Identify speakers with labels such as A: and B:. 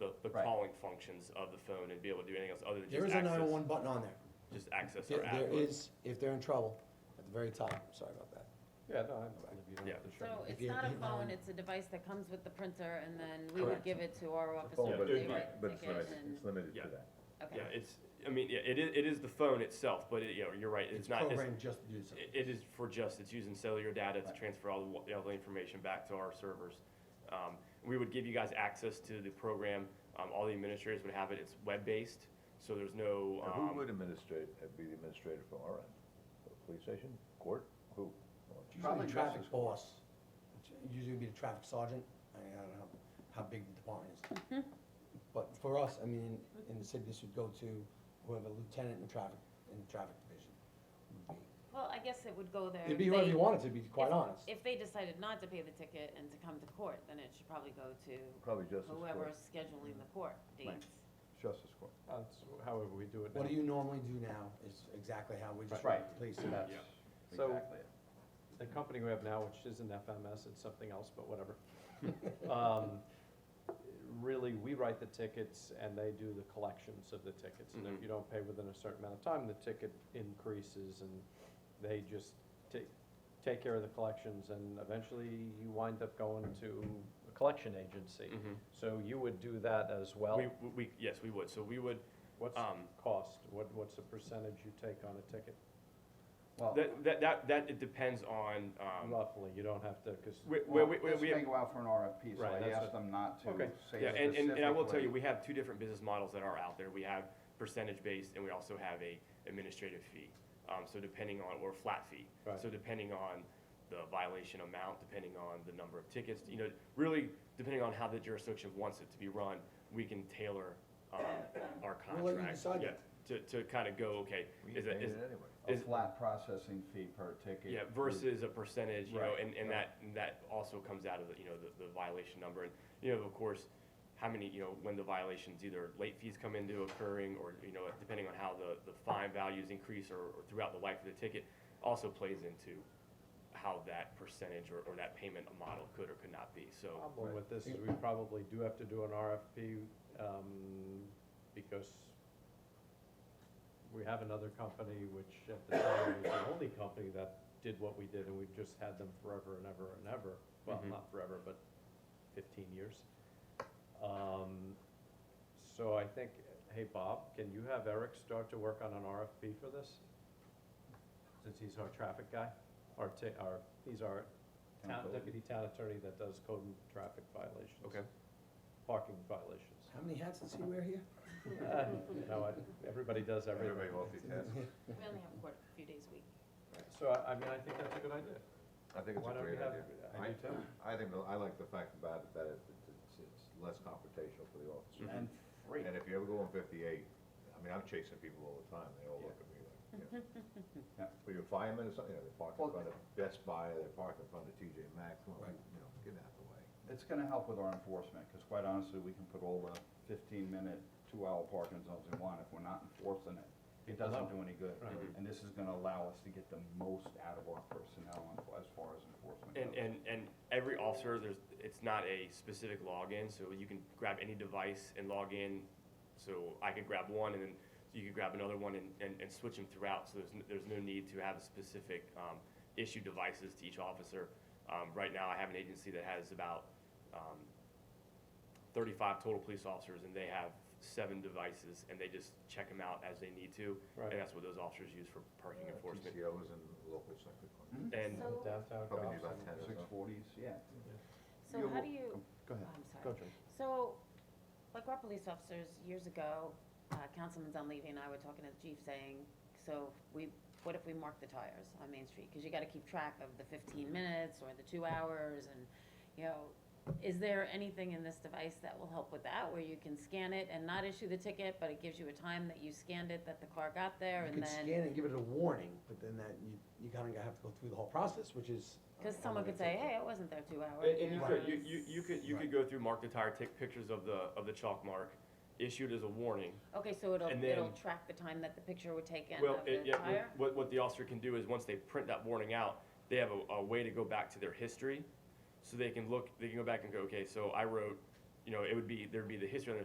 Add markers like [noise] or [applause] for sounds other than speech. A: Right.
B: calling functions of the phone and be able to do anything else other than
A: There is
B: just
A: a
B: access,
A: nine-one-one button on there.
B: just access
A: There
B: our
A: there
B: app.
A: is, if they're in trouble, at the very top, sorry about that.
C: Yeah, no, I believe you don't
B: Yeah.
C: have to
D: So
C: show
A: If
D: it's
A: you-
D: not a
A: you- um,
D: phone, it's a device that comes with the printer, and then we
A: Correct.
D: would give it to our
E: phone,
D: officer,
E: but
D: they
E: it-
D: write
E: but
D: a
E: it's
D: ticket,
E: limited,
D: and,
E: it's limited
B: Yeah.
E: to that.
B: Yeah,
D: okay.
B: it's, I mean, yeah, it is, it is the phone itself, but it, you know, you're right, it's not, it's,
A: programmed just to do so.
B: it- it is for just, it's using cellular data to
A: Right.
B: transfer all the, wa- all the information back to our servers. Um, we would give you guys access to the program, um, all the administrators would have it, it's web-based, so there's no,
E: Now, Who
B: um,
E: would administrate, uh, be the administrator from our end? The Police station, court, who? Well, it's
A: Probably
E: usually
A: traffic
E: justice.
A: boss, It's usually be the traffic sergeant, I mean, I don't know how big the department is.
D: Mm-hmm.
A: But for us, I mean, in the city, this would go to whoever lieutenant in traffic, in the traffic division. would be.
D: Well, I guess it would go there.
A: It'd
D: if
A: be whoever
D: they-
A: you wanted to, be quite
D: if-
A: honest.
D: If they decided not to pay the ticket and to come to court, then it should probably go to
E: Probably justice court,
D: whoever's scheduling the court dates.
E: justice court.
C: that. That's however we do it now.
A: What do you normally do now is exactly how we just.
C: Right.
A: run the Police.
C: So that's
B: Yeah.
C: So-
E: Exactly. it.
C: the company we have now, which isn't FMS, it's something else, but
B: [laughs]
C: whatever. Um, Really, we write the tickets and they do the collections of the tickets. And
B: Mhm.
C: if you don't pay within a certain amount of time, the ticket increases and they just take, take care of the collections and eventually you wind up going to a collection agency.
B: mhm.
C: So you would do that as well?
B: We, we, yes, we would, so we would,
C: What's the
B: um,
C: cost? What, what's the percentage you take on a ticket?
F: Well,
B: That, that, that, that it depends on, um,
C: Roughly, you don't have to, because
B: we, we,
F: well,
B: we,
F: this
B: we
F: may
B: have,
F: go out for an RFP, so
C: Right,
F: I
C: that's
F: asked them not to
C: Okay.
F: say
B: yeah, and, and, and I will tell
F: specifically.
B: you, we have two different business models that are out there. We have percentage-based and we also have a administrative fee. Um, so depending on, or flat fee.
C: Right.
B: So depending on the violation amount, depending on the number of tickets, you know, really depending on how the jurisdiction wants it to be run, we can tailor, um, our contract.
A: We'll let you decide
B: Yeah,
A: that.
B: to, to kind of go, okay,
E: We
B: is it,
E: paid
B: is,
E: it anyway.
F: A
B: is-
F: flat processing fee per ticket.
B: Yeah, versus a percentage, you know,
C: Right,
B: and, and that, and that also comes out of, the you know, the, the violation number. And, you know, of course, how many, you know, when the violations, either late fees come into occurring, or, you know, depending on how the, the fine values increase or, or throughout the life of the ticket, also plays into how that percentage or, or that payment model could or could not be, so.
C: problem with this is we probably do have to do an RFP, um, because we have another company which at the time was the only company that did what we did, and we've just had them forever and ever and ever. Well,
F: Mm-hmm.
B: Mhm.
C: not forever, but fifteen years. Um, so I think, hey, Bob, can you have Eric start to work on an RFP for this? Since he's our traffic guy, our ta- our, he's our
F: Town
C: town,
F: code.
C: deputy town attorney that does code and traffic violations.
B: Okay.
C: Parking violations.
A: How many hats does he wear here?
C: Uh, You know, I- everybody does everything.
E: Everybody multitask.
D: We only have court a few days a week.
C: So I, I mean, I think that's a good idea.
E: [laughs] I think it's a
C: Why don't we
E: great
C: have,
E: idea.
C: I do too.
E: I think, the- I like the fact about it, that it- it's, it's less confrontational for the officers.
F: Mm-hmm. And free.
E: And if you ever go on fifty-eight, I mean, I'm chasing people all the time, they all look at me like, you know.
F: [laughs] Yeah.
E: But your firemen or something, you know, they park in
F: Well-
E: front of Best Buy, they park in front of TJ Maxx, come on,
A: Right.
E: you know, get out of the way.
F: It's gonna help with our enforcement, because quite honestly, we can put all the fifteen-minute, two-hour parking zones we want. If we're not enforcing it, it
C: People know.
F: doesn't do any good.
C: Right.
F: And this is gonna allow us to get the most out of our personnel on- as far as enforcement goes.
B: And, and, and every officer, there's, it's not a specific login, so you can grab any device and log in. So I could grab one and then you could grab another one and, and, and switch them throughout, so there's, n- there's no need to have specific, um, issue devices to each officer. Um, right now, I have an agency that has about, um, thirty-five total police officers and they have seven devices and they just check them out as they need to.
C: Right.
B: And that's what those officers use for parking
E: Uh,
B: enforcement.
E: TCOs and local sector.
F: Mhm.
B: And
C: Downtown
E: Probably do
C: cops
E: about
C: and-
E: 10 or
F: Six
E: so.
F: forties, yeah.
D: So
F: You're
D: how do
F: wel-
D: you,
F: Go
D: oh,
F: ahead.
D: I'm sorry.
C: Go, Jim.
D: So, like our police officers, years ago, uh, Councilman Dunleavy and I were talking to the chief saying, so we, what if we mark the tires on Main Street? Because you gotta keep track of the fifteen minutes or the two hours and, you know, is there anything in this device that will help with that? Where you can scan it and not issue the ticket, but it gives you a time that you scanned it, that the car got there
A: You
D: and
A: could
D: then?
A: scan and give it a warning, but then that, you, you kinda have to go through the whole process, which is. uh,
D: Cause someone could say, hey, I wasn't there two hours.
B: And, and you
D: know,
B: could,
D: it
B: you,
D: was-
B: you, you could, you could go
A: Right.
B: through, mark the tire, take pictures of the, of the chalk mark, issued as a warning.
D: Okay, so it'll,
B: And
D: it'll
B: then-
D: track the time that the picture would take in
B: Well,
D: of
B: it,
D: the
B: yeah,
D: tire?
B: what, what the officer can do is, once they print that warning out, they have a, a way to go back to their history. So they can look, they can go back and go, okay, so I wrote, you know, it would be, there'd be the history on their